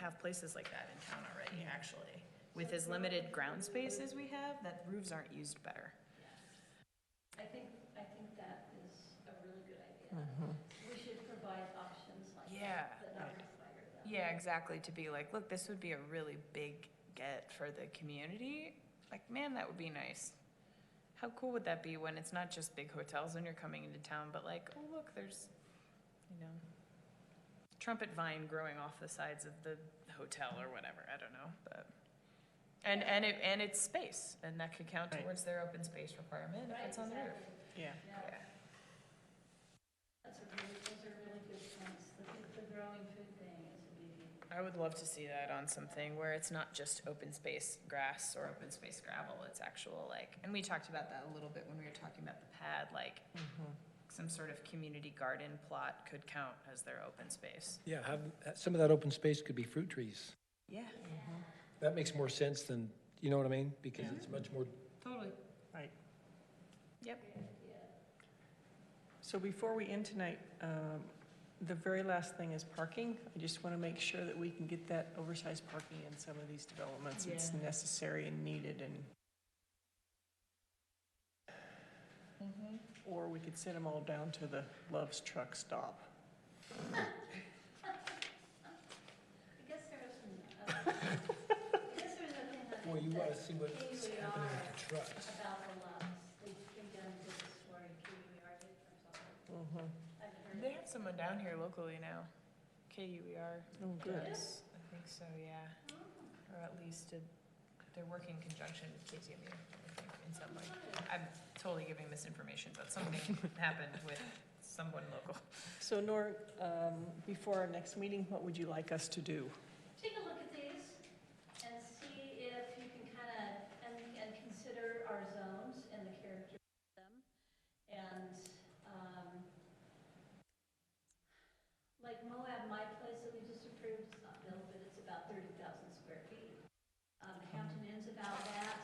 have places like that in town already, actually. With as limited ground space as we have, that roofs aren't used better. I think, I think that is a really good idea. We should provide options like Yeah. that, but not require them. Yeah, exactly, to be like, look, this would be a really big get for the community. Like, man, that would be nice. How cool would that be when it's not just big hotels when you're coming into town, but like, oh, look, there's, you know, trumpet vine growing off the sides of the hotel or whatever, I don't know, but. And, and it, and it's space, and that could count Right. towards their open space requirement if Right, it's on the roof. exactly. Yeah. Yeah, Yeah, that's a really, those are really good points. The, the growing food thing is a biggie. I would love to see that on something where it's not just open space grass or open space gravel, it's actual like, and we talked about that a little bit when we were talking about the pad, like Mm-hmm. some sort of community garden plot could count as their open space. Yeah, have, uh, some of that open space could be fruit trees. Yeah, That makes more sense than, you know what I mean? Because it's much more, totally. Right. Yep. So before we end tonight, um, the very last thing is parking. I just want to make sure that we can get that oversized parking in some of these developments. It's Yeah. necessary and needed and, or we could send them all down to the Love's Truck Stop. I guess there was some, other- I guess there was a thing that. boy, you that want to see what's KUER happening with the trucks. About the loves, they, they done this for E KUER did or something. Mm-hmm. I've heard. They have someone down here locally now, KUER. Oh, good. Yes, I think so, yeah, or at least a- they're working in conjunction with KTMU, I think, in some way. I'm totally giving misinformation, but something happened with someone local. So Nor, um, before our next meeting, what would you like us to do? Take a look at these and see if you can kind of, and, and consider our zones and the character of them. And, um, like Moab, my place that we just approved, it's not built, but it's about thirty thousand square feet. Um, Hampton Inn's about that.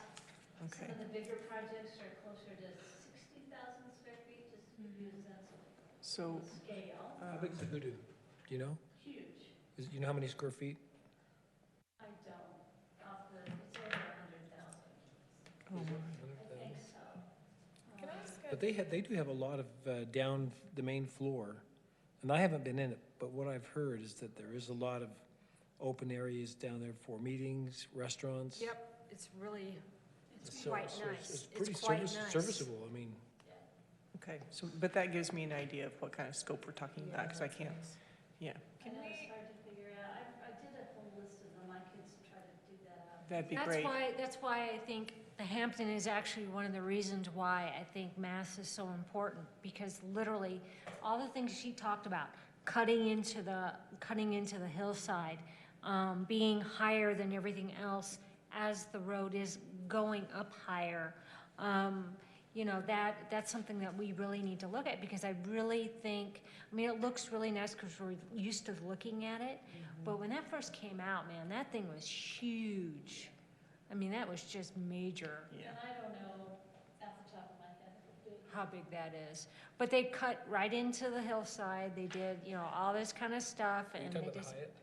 Some Okay, of the bigger projects are closer to sixty thousand square feet, just to use that sort of so, scale. uh, How big is the hoodoo? Do you know? Huge. Is, you know how many square feet? I don't, off the, it's over a hundred thousand. Oh, Oh, I think so. Can I ask But they had, they do have a lot of, uh, down the main floor. And I haven't been in it, but what I've heard is that there is a lot of open areas down there for meetings, restaurants. Yep, it's really, Um, So- quite so it's- nice. It's It's pretty quite service- nice. serviceable, I mean. okay, so, but that gives me an idea of what kind of scope we're talking about, because I can't, yeah, I Can know we- it's hard to figure out. I, I did a whole list of them. I could s- try to do that up. that'd be that's great. why, that's why I think the Hampton is actually one of the reasons why I think mass is so important, because literally, all the things she talked about, cutting into the, cutting into the hillside, um, being higher than everything else as the road is going up higher, um, you know, that, that's something that we really need to look at, because I really think, I mean, it looks really nice because we're used to looking at it, Mm-hmm. but when that first came out, man, that thing was huge. I mean, that was just major, Yeah. And I don't know off the top of my head. if it'll do. how big that is. But they cut right into the hillside, they did, you know, all this kind of stuff, Are you and talking they about the just, Hyatt?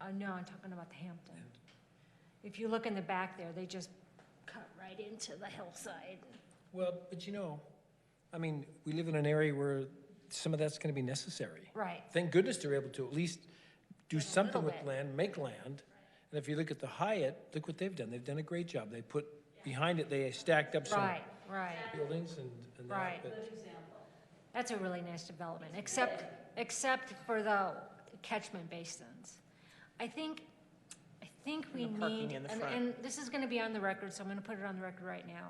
uh, no, I'm talking about the Hampton. If you look in the back there, they just cut right into the hillside. Well, but you know, I mean, we live in an area where some of that's gonna be necessary. Right, Thank goodness they're able to at least do a something little with bit. land, make land. And if you look at the Hyatt, look what they've done. They've done a great job. They put, behind it, they stacked up some right, right. buildings and, and Right. that. but- Good example. That's a really nice development, except, except for the catchment basins. I think, I think we And the parking need, in the and, front. and this is gonna be on the record, so I'm gonna put it on the record right now.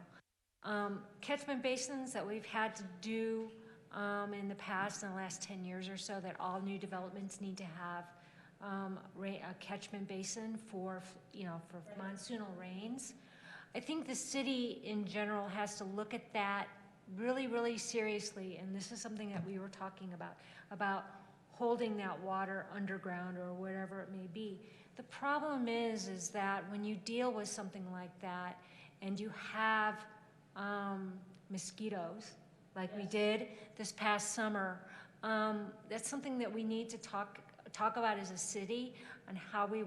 Um, catchment basins that we've had to do, um, in the past, in the last ten years or so, that all new developments need to have, um, ra a catchment basin for, you know, for monsoonal rains. I think the city in general has to look at that really, really seriously, and this is something that we were talking about, about holding that water underground or whatever it may be. The problem is, is that when you deal with something like that and you have um, mosquitoes, like we did this past summer, um, that's something that we need to talk, talk about as a city on how we